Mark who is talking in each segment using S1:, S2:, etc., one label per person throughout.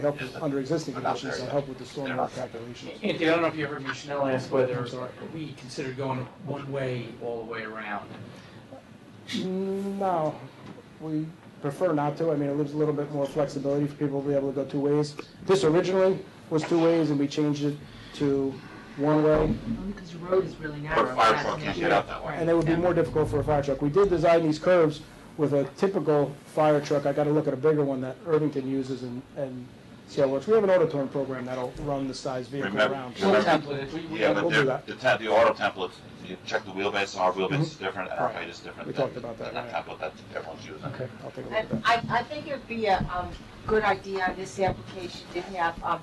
S1: help with, under existing
S2: I'm not
S1: conditions,
S2: there
S1: they'll
S2: yet.
S1: help with the
S2: They're
S1: stormwater
S2: not
S1: calculations.
S3: Anthony, I don't know if you heard me, Chanel asked whether
S1: I'm sorry.
S3: we considered going one way all the way around.
S1: No, we prefer not to. I mean, it leaves a little bit more flexibility for people to be able to go two ways. This originally was two ways, and we changed it to one way,
S4: Because the road is really narrow.
S2: Or a fire
S4: that's
S2: truck
S4: an
S2: can't
S4: issue.
S2: get out that way.
S4: Right,
S1: and it would be
S4: yeah.
S1: more difficult for a fire truck. We did design these curves with a typical fire truck. I gotta look at a bigger one that Irvington uses and, and see how it works. We have an auditorium program that'll run the size vehicle
S2: Remember-
S1: around.
S3: One template, we, we,
S2: Yeah, but
S1: We'll do
S2: they're-
S1: that. Mm-hmm.
S2: the, te- the auto templates, you check the wheelbase, our wheelbase is different, and our
S1: Right.
S2: height is different.
S1: We
S2: than-
S1: talked about that,
S2: than
S1: right.
S2: template that everyone's using.
S1: Okay, I'll take a look at
S5: And
S1: that.
S5: I, I think it'd be a, um, good idea on this application to have, um,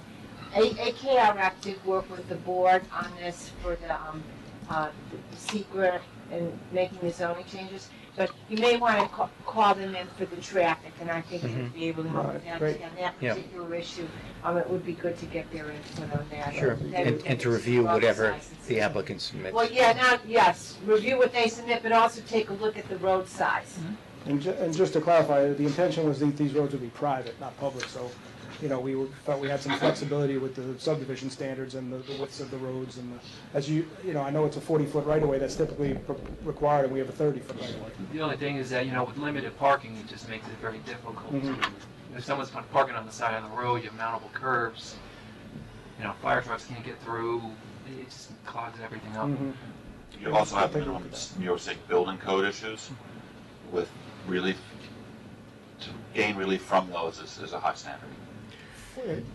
S5: A- AKRF did work with the board on this for the, um, uh, secret and making the zoning changes, but you may wanna ca- call them in for the traffic, and I think you'd be able to help with
S1: Right,
S5: that,
S1: great.
S5: on that
S6: Mm-hmm. Yeah.
S5: particular issue. Um, it would be good to get their input on that.
S6: Sure,
S5: They would
S6: and, and
S5: make
S6: to
S5: some
S6: review whatever
S5: sizes.
S6: the applicant submits.
S5: Well, yeah, now, yes, review what they submit, but also take a look at the road size.
S1: And ju, and just to clarify, the intention was that these roads would be private, not public, so, you know, we were- felt we had some flexibility with the subdivision standards and the the widths of the roads and the, as you, you know, I know it's a forty-foot right-of-way that's typically pro- required, and we have a thirty-foot right-of-way.
S7: The only thing is that, you know, with limited parking, it just makes it very difficult.
S1: Mhm.
S7: to-
S3: Mm-hmm.
S7: If someone's parking on the side of the road, you have mountable curbs, you know, fire trucks can't get through, it just clogs everything up.
S3: Mm-hmm.
S1: Mhm.
S2: You also have
S1: Take a look
S2: minimum
S1: at that.
S2: New York State building code issues with relief, to gain relief from those is, is a high standard.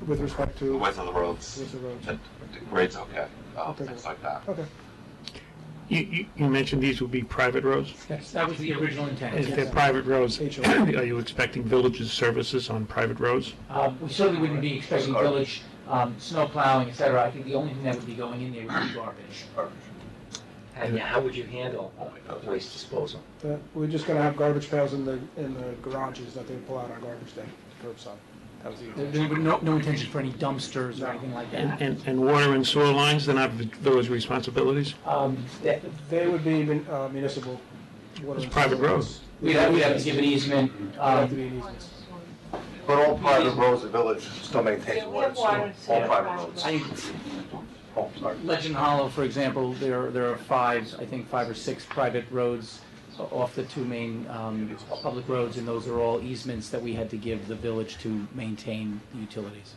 S1: With respect
S2: The
S1: to,
S2: width of the roads,
S1: with the roads.
S2: that, the grade's okay, uh,
S1: Okay.
S2: things like that.
S1: Okay,
S8: You, you, you mentioned these would be private roads.
S3: yes, that was the original
S8: If
S3: intent.
S8: they're private roads,
S1: HOA.
S8: are you expecting villages services on private roads?
S3: Um, we certainly wouldn't be expecting village, um, snow plowing, et cetera. I think the only thing that would be going in there would be garbage.
S6: And how would you handle waste disposal?
S1: Uh, we're just gonna have garbage pails in the, in the garages that they pull out on garbage day, curbside. That was the
S3: There, there would no, no intention for any dumpsters or anything like
S8: And,
S3: that.
S8: and, and water and sewer lines, they're not village responsibilities?
S3: Um, that,
S1: They would be mun- uh, municipal. water
S8: It's
S1: and
S8: private
S1: sewer.
S8: roads.
S3: we'd have, we'd have to give an easement,
S1: Have to
S3: um,
S1: be an easement.
S9: But all private roads, the village still maintains
S5: Yeah, we
S9: water
S5: have
S9: and sewer.
S5: water and
S9: All private
S5: sewer.
S9: roads.
S3: I think
S9: Oh, sorry.
S3: Legend Hollow, for example, there, there are five, I think five or six private roads off the two main, um, public roads, and those are all easements that we had to give the village to maintain utilities.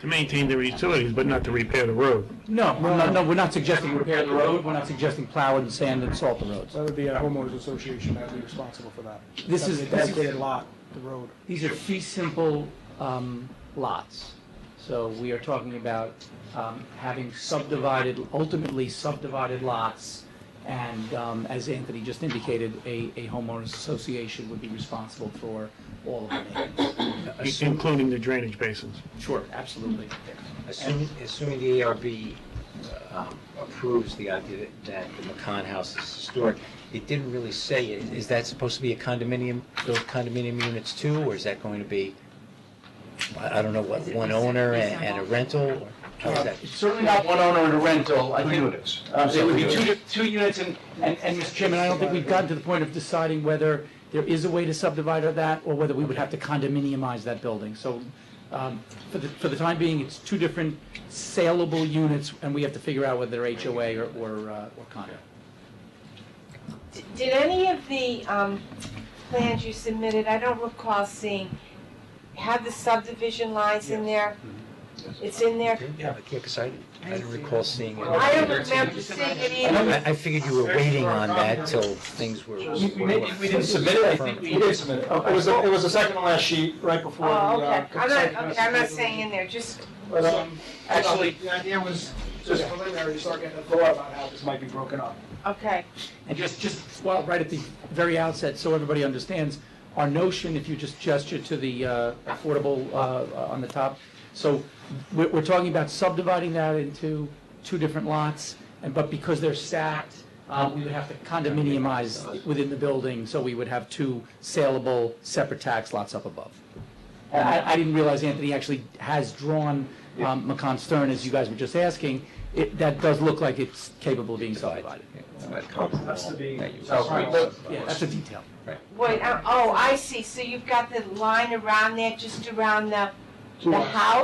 S8: To maintain their utilities, but not to repair the road.
S3: No, we're not- no, we're not suggesting repair the road, we're not suggesting plow and sand and salt the roads.
S1: That would be a homeowners association that would be responsible for that.
S3: This is-
S1: That'd be a dedicated lot, the road.
S3: These are fee simple, um, lots. So we are talking about, um, having subdivided, ultimately subdivided lots. And, um, as Anthony just indicated, a, a homeowners association would be responsible for all of it.
S8: i- Including the drainage basins.
S3: Sure, absolutely.
S6: Assuming, assuming the ARB um, approves the idea that the McCon House is historic, it didn't really say, it. is that supposed to be a condominium, those condominium units too, or is that going to be, I I don't know, what, one owner and and a rental? or How is that?
S3: Uh, It's certainly not one owner and a rental. I
S9: Two
S3: think-
S9: units.
S3: Uh, It would be two, two units, and, and, and, Mr. Chairman, I don't think we've gotten to the point of deciding whether there is a way to subdivide or that, or whether we would have to condominiumize that building. So, um, for the, for the time being, it's two different saleable units, and we have to figure out whether they're HOA or, or uh, or condo.
S5: D- Did any of the um, plans you submitted, I don't recall seeing, have the subdivision lines in there? It's in there?
S6: Yeah, because I, I didn't recall seeing it.
S5: I don't remember seeing it either.
S6: I, I figured you were waiting on that till things were.
S3: we didn't submit it, I think we did submit
S10: Uh, It was, the- it was the second to last sheet, right before the.
S5: Oh,
S10: uh,
S5: okay. I'm not,
S10: consent.
S5: okay, I'm not saying in there, just,
S10: But, um,
S3: Actually-
S10: The idea was just preliminary, to start getting a thought about how this might be broken up.
S5: okay.
S3: And just, just, well, right at the very outset, so everybody understands, our notion, if you just gesture to the uh, affordable uh, on the top, so we're, we're talking about subdividing that into two different lots, and, but because they're stacked, uh, we would have to condominiumize within the building, so we would have two saleable, separate tax lots up above. And I, I didn't realize Anthony actually has drawn um, Macon Stern, as you guys were just asking. It, that does look like it's capable of being subdivided.
S10: That's to be.
S3: Yeah, that's a detail.
S5: Wait, uh, oh, I see, so you've got the line around there, just around the The house